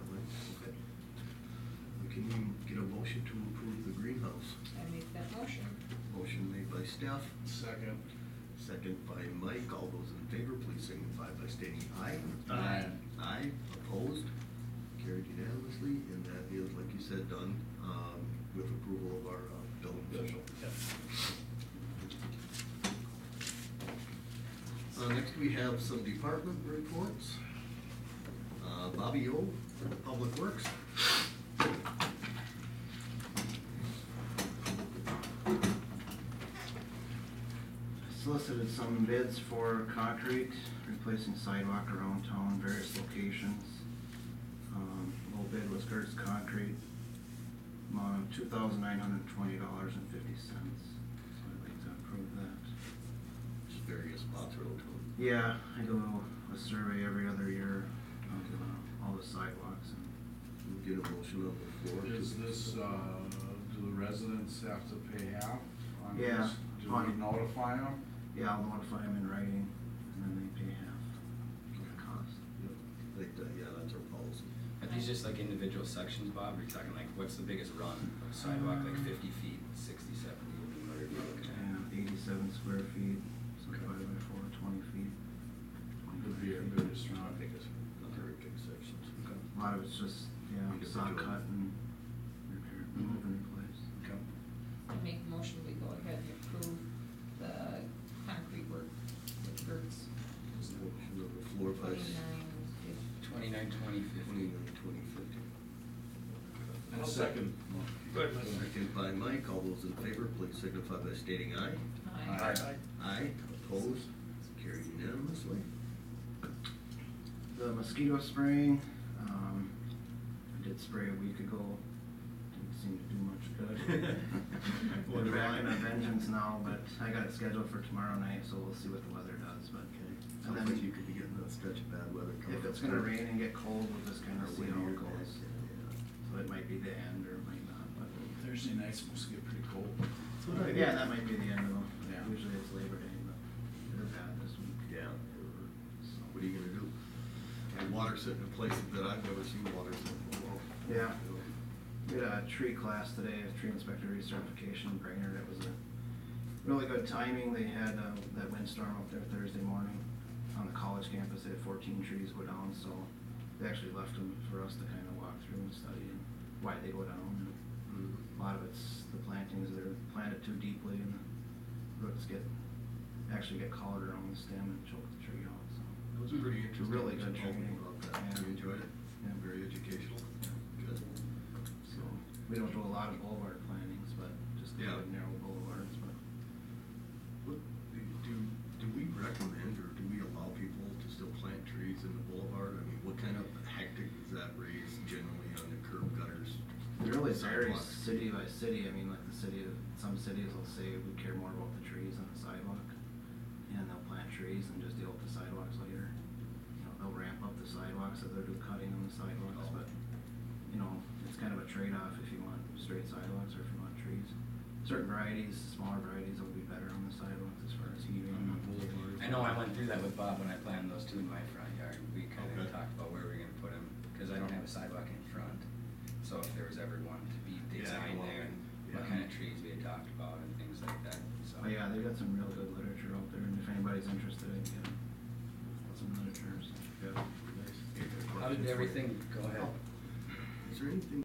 Steph, Second. second by Mike. All those in favor, please signify by stating aye. Aye. Aye, opposed, carried unanimously, and that is, like you said, done, um, with approval of our uh, building official. Uh, next we have some department reports. Uh, Bobby O, Public Works. Solicited some bids for concrete, replacing sidewalk around town, various locations. Um, low bid was Gertz Concrete, amount of two thousand nine hundred and twenty dollars and fifty cents. So I'd like to approve that. Just various spots around town. Yeah, I do a survey every other year, I do uh, all the sidewalks and, We'll Get a motion on the floor. to- Is this, uh, do the residents have to pay half on this? Yeah. Do we notify them? yeah, I'll notify them in writing, and then they pay half of the cost. Yep, I think that, yeah, that's our policy. Are these just like individual sections, Bob, or are you talking like, what's the biggest run of sidewalk, like fifty feet, sixty, seventy, whatever you're looking And at? eighty-seven square feet, so divided by four, twenty feet. Would be our 25 feet. biggest round. Not very big sections. A lot of it's just, yeah, saw Individual. cut and repair, remove and replace. Okay. I make a motion, we go ahead and approve the concrete work with Gertz. There's a motion on the floor by Twenty-nine fifty. Twenty-nine, twenty, fifty. twenty-nine, twenty fifty. And second. Good. Second by Mike, all those in favor, please signify by stating aye. Aye. Aye, opposed, carried unanimously. The mosquito spraying, um, I did spray a week ago, didn't seem to do much good. Wonder We're back in a why. vengeance now, but I got it scheduled for tomorrow night, so we'll see what the weather does, but. and Sounds then like you could be getting that stretch of bad weather coming up. If it's gonna rain and get cold, we'll just kinda Or see how windier it goes. back, yeah. So it might be the end or it might not, but. Thursday night's supposed to get pretty cold. what I did. Yeah, that might be the end of them. Yeah. Usually it's Labor Day, but they're bad this week. Yeah. What are you gonna do? And water sitting in places that I've never seen water sitting below. Yeah. We had a tree class today, a tree inspector recertification in Brainerd. It was a really good timing. They had uh, that windstorm up there Thursday morning on the college campus. They had fourteen trees go down, so they actually left them for us to kind of walk through and study and why they go down. And Mm. A lot of it's the plantings, they're planted too deeply and the roots get, actually get collared around the stem and choke the tree out, so. It was pretty It's interesting. a really good Talking training. about that. You Yeah. enjoyed it? Yeah. Very educational. Good. So, we don't do a lot of boulevard plantings, but just Yeah. kind of narrow boulevards, but. What, do, do- do we recommend or do we allow people to still plant trees in the boulevard? I mean, what kind of hectic does that raise generally on the curb gutters? It really varies sidewalks? city by city, I mean, like the city, of some cities will say we care more about the trees than the sidewalk. And they'll plant trees and just deal with the sidewalks later. You know, they'll ramp up the sidewalks if they're do cutting on the sidewalks, Oh. but, you know, it's kind of a trade-off if you want straight sidewalks or if you want trees. Certain varieties, smaller varieties will be better on the sidewalks as far as heating. On the boulevard. Mm-hmm. I know I went through that with Bob when I planted those two in my front yard, we kinda Okay. talked about where we're gonna put them, cause I don't have a sidewalk in front. So if there was ever one to be Yeah, designed well, there, and what yeah. kind of trees we had talked about and things like that, so. Oh yeah, they've got some real good literature out there, and if anybody's interested, I can get some literature, so. Nice. How did everything go ahead? Is there anything